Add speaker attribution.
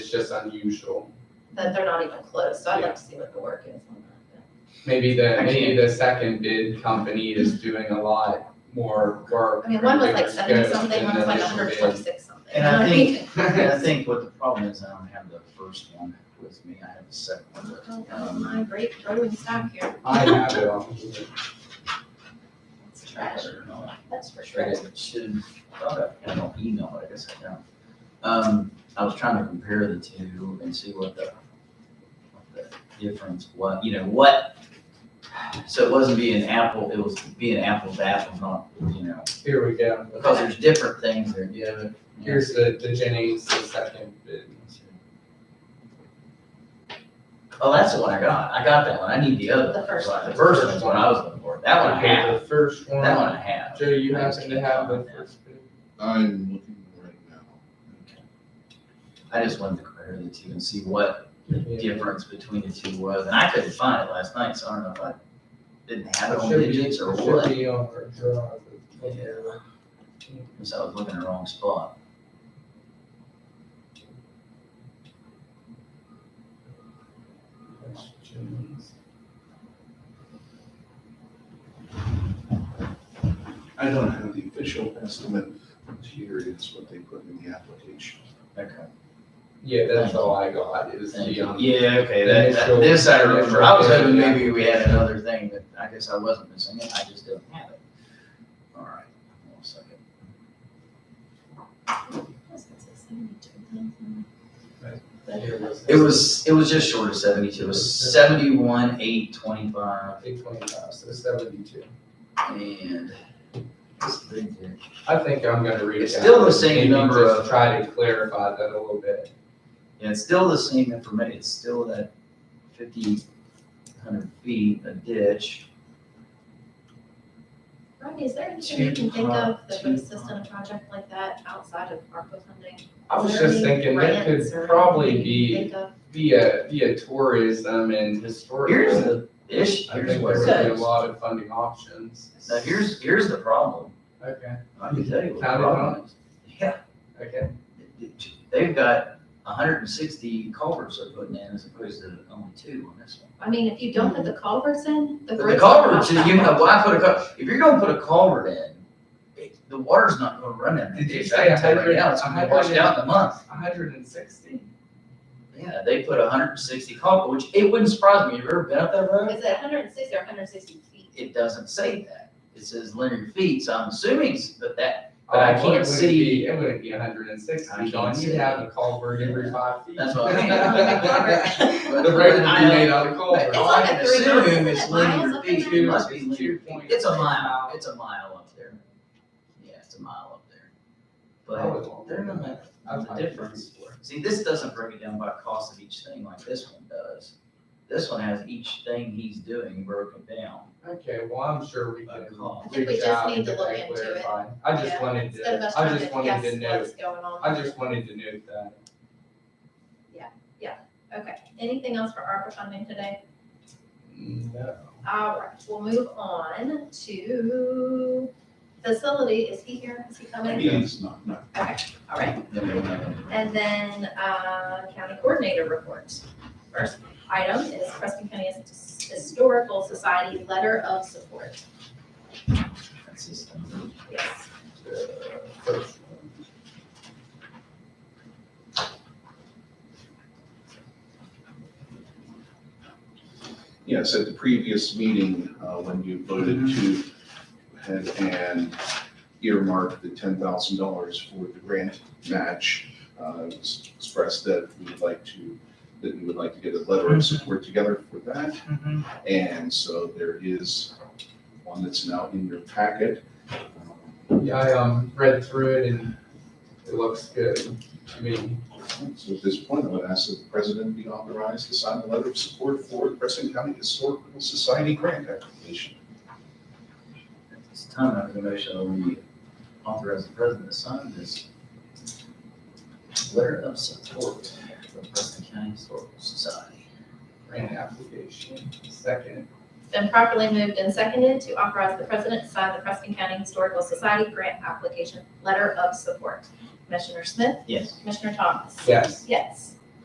Speaker 1: just unusual.
Speaker 2: that they're not even close, so I'd
Speaker 1: Yeah.
Speaker 2: like to see what the work is on that.
Speaker 1: Maybe the, maybe the second bid company is doing a lot more work.
Speaker 2: I mean, one was
Speaker 1: than
Speaker 2: like
Speaker 1: their
Speaker 2: seventy
Speaker 1: scope
Speaker 2: something,
Speaker 1: in
Speaker 2: one was
Speaker 1: the
Speaker 2: like
Speaker 1: initial
Speaker 2: hundred twenty-six something.
Speaker 3: And I
Speaker 2: You know
Speaker 3: think-
Speaker 2: what
Speaker 3: And I think what the problem is, I don't have the first one with me, I have the second one.
Speaker 2: I mean? Oh,
Speaker 3: Um,
Speaker 2: my great rolling stock here,
Speaker 1: bid. I have it on.
Speaker 2: it's trash, that's for
Speaker 3: I
Speaker 2: sure.
Speaker 3: guess I should have thought of, I don't email, it, I guess I don't. Um, I was trying to compare the two and see what the, what the difference was, you know, what. So it wasn't being apple, it was being apples to apples, not, you know,
Speaker 1: Here we go.
Speaker 3: because there's different things there, yeah, but.
Speaker 1: Here's the, the Jennings, the second bid.
Speaker 3: Oh, that's the one I got, I got that one, I need the other.
Speaker 2: The first
Speaker 3: one.
Speaker 2: one.
Speaker 3: The first one's what I was looking for, that one I
Speaker 1: Okay,
Speaker 3: have,
Speaker 1: The first one.
Speaker 3: that one I have.
Speaker 1: Joe, you happen to have the first bid?
Speaker 4: I'm looking right now.
Speaker 3: I just wanted to compare the two and see what
Speaker 1: Yeah.
Speaker 3: difference between the two was, and I couldn't find it last night, so I don't know if I didn't have it on
Speaker 1: Should be-
Speaker 3: digits or
Speaker 1: Should
Speaker 3: what.
Speaker 1: be on our drive.
Speaker 3: Yeah. Because I was looking in the wrong spot.
Speaker 1: That's Jennings.
Speaker 4: I don't have the official estimate, but here is what they put in the application.
Speaker 3: Okay.
Speaker 1: Yeah, that's all I got is the, um,
Speaker 3: Yeah, okay, that, that- this I remember. I was hoping maybe we had another thing, but I guess I wasn't missing it. I just didn't have it. All right, one second.
Speaker 1: here was.
Speaker 3: It was, it was just short of seventy-two. It was seventy-one, eight, twenty-five,
Speaker 1: Eight twenty-five, so seventy-two.
Speaker 3: and. this big here.
Speaker 1: I think I'm gonna reach out.
Speaker 3: It's still the same
Speaker 1: Maybe
Speaker 3: number
Speaker 1: just
Speaker 3: of-
Speaker 1: Try to clarify that a little bit.
Speaker 3: And it's still the same information, it's still that fifty, hundred feet, a ditch.
Speaker 2: Rodney, is there anything you can think of that
Speaker 3: Two
Speaker 2: would
Speaker 3: pump,
Speaker 2: assist in a project like that outside of ARPA funding?
Speaker 1: I was
Speaker 2: Is there
Speaker 1: just
Speaker 2: any
Speaker 1: thinking that
Speaker 2: grants or
Speaker 1: could probably
Speaker 2: anything you can
Speaker 1: be
Speaker 2: think of?
Speaker 1: via, via tourism and historical.
Speaker 3: Here's the ish,
Speaker 1: I think
Speaker 3: here's
Speaker 1: there
Speaker 3: what
Speaker 1: would
Speaker 3: it
Speaker 1: be a
Speaker 3: is.
Speaker 1: lot of funding options.
Speaker 3: Now, here's, here's the problem,
Speaker 1: Okay,
Speaker 3: I can tell you what the
Speaker 1: Count it
Speaker 3: problem is. Yeah,
Speaker 1: okay.
Speaker 3: they've got hundred and sixty culverts they're putting in as opposed to only two on this one.
Speaker 2: I mean, if you don't
Speaker 1: Hmm.
Speaker 2: put the culverts in, the
Speaker 3: But
Speaker 2: bridge.
Speaker 3: The culverts, you know, why put a cul, if you're gonna put a culvert in, it- the water's not gonna run in.
Speaker 1: Did you
Speaker 3: It's
Speaker 1: say
Speaker 3: like right
Speaker 1: 100?
Speaker 3: now, It's gonna be washed out in a month.
Speaker 1: hundred and sixty?
Speaker 3: Yeah, they put hundred and sixty culvert, which it wouldn't surprise me, you ever been up that road?
Speaker 2: Is it hundred and sixty or hundred and sixty feet?
Speaker 3: It doesn't say that, it says linear feet, so I'm assuming it's- that that, But I can't see-
Speaker 1: It wouldn't Oh, be hundred and
Speaker 3: I
Speaker 1: sixty,
Speaker 3: can't
Speaker 1: Don,
Speaker 3: see
Speaker 1: you'd
Speaker 3: it.
Speaker 1: have a culvert every five feet.
Speaker 3: that's what I
Speaker 1: The road would be made out of
Speaker 3: But
Speaker 1: culverts.
Speaker 3: all I
Speaker 2: It's
Speaker 3: can
Speaker 2: like a three miles, isn't
Speaker 3: assume is
Speaker 2: it? Miles
Speaker 3: linear
Speaker 2: up
Speaker 3: feet,
Speaker 2: there?
Speaker 3: it must be linear feet, it's a mile,
Speaker 1: 2.8
Speaker 3: it's a mile up there. Yeah, it's a mile up there. But
Speaker 1: Probably longer
Speaker 3: they're
Speaker 1: than
Speaker 3: not,
Speaker 1: that.
Speaker 3: That's the
Speaker 1: I'd
Speaker 3: difference.
Speaker 1: like
Speaker 3: See, this doesn't break it down by cost of each thing like this one does. This one has each thing he's doing broken down
Speaker 1: Okay, well, I'm sure we
Speaker 3: by
Speaker 1: can.
Speaker 3: cost.
Speaker 2: I think we
Speaker 1: reach
Speaker 2: just
Speaker 1: out
Speaker 2: need
Speaker 1: and
Speaker 2: to
Speaker 1: get
Speaker 2: look
Speaker 1: that
Speaker 2: into it.
Speaker 1: clarified. I just
Speaker 2: Yeah.
Speaker 1: wanted
Speaker 2: Instead of
Speaker 1: to,
Speaker 2: us
Speaker 1: I
Speaker 2: trying
Speaker 1: just
Speaker 2: to
Speaker 1: wanted to
Speaker 2: guess
Speaker 1: note,
Speaker 2: what's going on.
Speaker 1: I just wanted to note that.
Speaker 2: Okay, anything else for ARPA funding today?
Speaker 1: No.
Speaker 2: All right, we'll move on to facility. Is he here? Is he coming?
Speaker 4: It's not, not
Speaker 2: Okay, all right.
Speaker 3: Then we don't have any-
Speaker 2: And then, uh, county coordinator report. First item is Preston County Historical Society Letter of Support.
Speaker 3: That's his thing.
Speaker 2: Yes.
Speaker 4: Yes, at the previous meeting, uh, when you voted to head and earmark the ten thousand dollars for the grant match, uh, it was expressed that we would like to, that we would like to get a letter of support together for that. And so there is one that's now in your packet.
Speaker 1: Yeah, I, um, read through it and it looks good to me.
Speaker 4: So at this point, I would ask that the president be authorized to sign the letter of support for the Preston County Historical Society grant application.
Speaker 3: At this time, I make a motion that we authorize the president to sign this letter of support for Preston County Historical Society.
Speaker 1: Grant application, second.
Speaker 2: Been properly moved and seconded to authorize the president to sign the Preston County Historical Society Grant Application Letter of Support. Commissioner Smith,
Speaker 3: Yes.
Speaker 2: Commissioner Thomas.
Speaker 1: Yes.
Speaker 2: Yes.